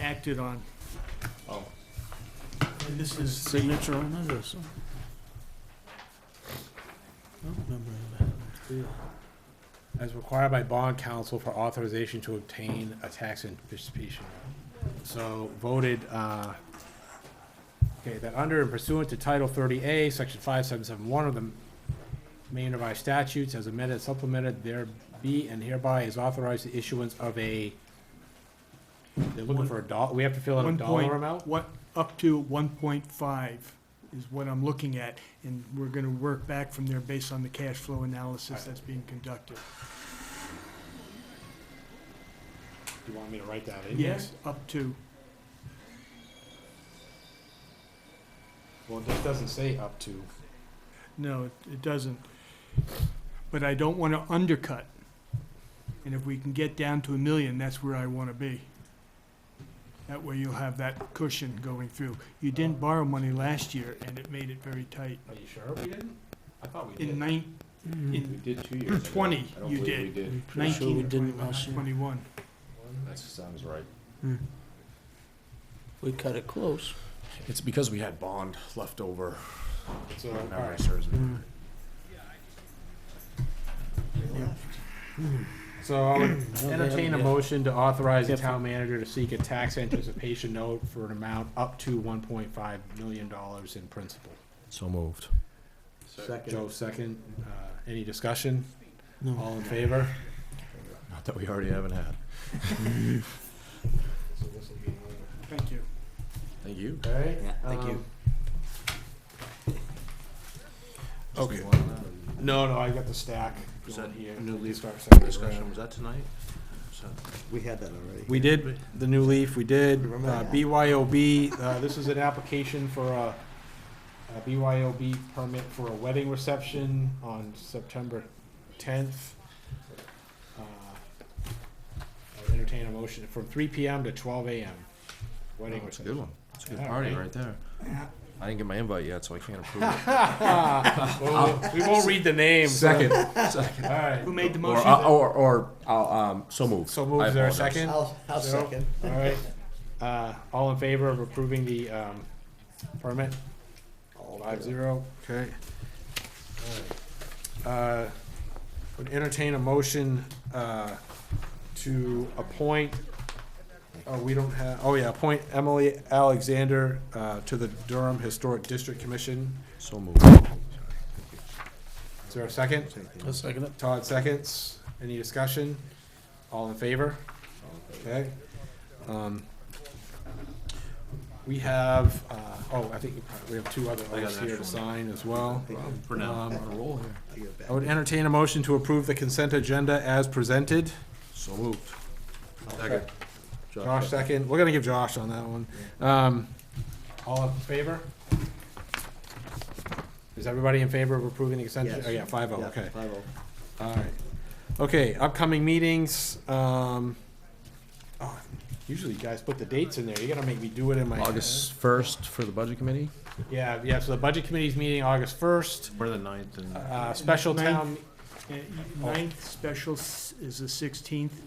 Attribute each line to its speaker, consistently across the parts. Speaker 1: acted on.
Speaker 2: Oh.
Speaker 1: And this is signature on it or something? I don't remember that.
Speaker 3: As required by bond counsel for authorization to obtain a tax anticipation. So voted, uh, okay, that under and pursuant to Title thirty A, Section five seven seven one of the Maine Revised Statutes as amended, and supplemented, there be and hereby is authorized the issuance of a, they're looking for a dollar, we have to fill in a
Speaker 1: One point-
Speaker 3: dollar amount?
Speaker 1: What, up to one point five is what I'm looking at, and we're gonna work back from there based on the cash flow analysis that's being conducted.
Speaker 3: Do you want me to write that in?
Speaker 1: Yes, up to,
Speaker 3: Well, this doesn't say up to.
Speaker 1: no, it- it doesn't. But I don't wanna undercut, and if we can get down to a million, that's where I wanna be. That way you'll have that cushion going through. You didn't borrow money last year, and it made it very tight.
Speaker 3: Are you sure we didn't? I thought we
Speaker 1: In
Speaker 3: did.
Speaker 1: nine,
Speaker 3: We
Speaker 1: in
Speaker 3: did two years ago.
Speaker 1: 20
Speaker 2: I don't
Speaker 1: you
Speaker 2: believe
Speaker 1: did.
Speaker 2: We did.
Speaker 1: nineteen or
Speaker 4: Mm-hmm. didn't
Speaker 1: 21,
Speaker 4: last year.
Speaker 1: 21.
Speaker 2: That sounds right.
Speaker 4: We cut it close.
Speaker 2: It's because we had bond left over.
Speaker 3: So,
Speaker 2: if
Speaker 3: all
Speaker 2: memory
Speaker 3: right.
Speaker 2: serves me.
Speaker 4: Mm.
Speaker 3: So I would entertain a motion to authorize the
Speaker 4: Yeah.
Speaker 3: town manager to seek a tax anticipation note for an amount up to one point five million dollars in principal.
Speaker 2: So moved.
Speaker 3: Joe, second. Uh, any discussion?
Speaker 4: No.
Speaker 3: All in favor?
Speaker 2: Not that we already haven't had.
Speaker 1: Thank you.
Speaker 2: Thank you.
Speaker 3: Okay.
Speaker 4: Yeah, thank you.
Speaker 3: um,
Speaker 2: Okay.
Speaker 3: No, no, I got the stack
Speaker 2: Was
Speaker 3: going
Speaker 2: that
Speaker 3: here.
Speaker 2: new
Speaker 3: We'll
Speaker 2: leaf
Speaker 3: start second round.
Speaker 2: was that tonight?
Speaker 4: We had that already.
Speaker 3: We did, the new leaf, we did,
Speaker 4: Remember
Speaker 3: uh,
Speaker 4: that.
Speaker 3: BYOB, uh, this is an application for a, a BYOB permit for a wedding reception on September tenth. Uh, Entertain a motion from three PM to twelve AM,
Speaker 4: Oh,
Speaker 3: wedding
Speaker 2: It's a good
Speaker 3: reception.
Speaker 2: one. It's a good
Speaker 3: Yeah,
Speaker 2: party
Speaker 3: right.
Speaker 2: right there. I didn't get my invite yet, so I can't approve it.
Speaker 3: Well, We won't read the names.
Speaker 2: Second. Second.
Speaker 3: Alright,
Speaker 1: Who made the
Speaker 2: Or,
Speaker 1: motion?
Speaker 2: uh, or, or, I'll, um, so moved.
Speaker 3: so
Speaker 2: I
Speaker 3: moves there a
Speaker 2: apologize.
Speaker 3: second?
Speaker 4: I'll, I'll
Speaker 3: Zero.
Speaker 4: second.
Speaker 3: All right, uh, all in favor of approving the, um, permit? Five zero.
Speaker 2: Okay.
Speaker 3: Uh, would entertain a motion, uh, to appoint, oh, we don't have, oh yeah, appoint Emily Alexander, uh, to the Durham Historic District Commission.
Speaker 2: So moved.
Speaker 3: Is there a second?
Speaker 4: I'll second it.
Speaker 3: Todd seconds. Any discussion? All in favor? Okay. Um, We have, uh, oh, I think we have two other
Speaker 2: I got
Speaker 3: oaths
Speaker 2: an
Speaker 3: here to
Speaker 2: extra
Speaker 3: sign as well.
Speaker 2: For now,
Speaker 3: Um,
Speaker 2: on a roll here.
Speaker 4: I give it back.
Speaker 3: I would entertain a motion to approve the consent agenda as presented.
Speaker 2: So moved. Second.
Speaker 3: Josh second. We're gonna give Josh on that one. Um, All in favor? Is everybody in favor of approving the consent?
Speaker 4: Yes.
Speaker 3: Oh, yeah, five oh,
Speaker 4: Yeah,
Speaker 3: okay.
Speaker 4: Five oh.
Speaker 3: All right. Okay, upcoming meetings, um, oh, usually you guys put the dates in there. You gotta make me do it in my. head.
Speaker 2: August first for the budget committee?
Speaker 3: Yeah, yeah, so the budget committee's meeting August first,
Speaker 2: We're the ninth and.
Speaker 3: uh, special town,
Speaker 1: Uh, Ninth special s- is the sixteenth.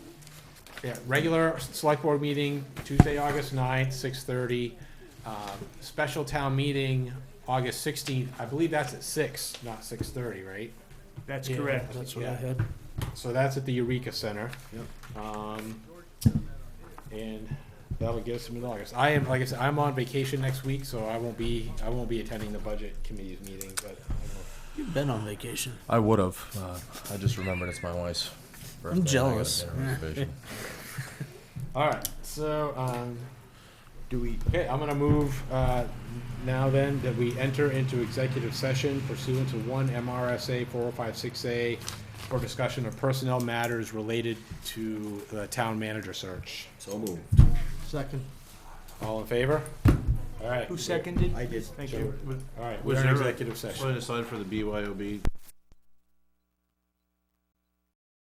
Speaker 3: yeah, regular select board meeting Tuesday, August ninth, six thirty. Um, special town meeting, August sixteenth. I believe that's at six, not six thirty, right?
Speaker 1: That's
Speaker 3: Yeah.
Speaker 1: correct.
Speaker 4: That's what I
Speaker 3: Yeah.
Speaker 4: had.
Speaker 3: So that's at the Eureka Center. Um, and that'll get us to mid-August. I am, like I said, I'm on vacation next week, so I won't be, I won't be attending the budget committee's meeting, but
Speaker 4: You've been on vacation.
Speaker 2: I would have. Uh, I just remembered it's my wife's. birthday. I
Speaker 4: jealous.
Speaker 2: gotta get a
Speaker 3: I
Speaker 2: reservation.
Speaker 3: will. All right, so, um, do we, okay, I'm gonna move, uh, now then, that we enter into executive session pursuant to one MRSA four oh five six A for discussion of personnel matters related to the town manager search.
Speaker 2: So moved.
Speaker 4: Second.
Speaker 3: All in favor? All right.
Speaker 1: Who seconded?
Speaker 4: I did.
Speaker 1: Thank you.
Speaker 3: All right,
Speaker 5: Was
Speaker 3: we're in
Speaker 5: there a-
Speaker 3: executive session.
Speaker 5: Putting aside for the BYOB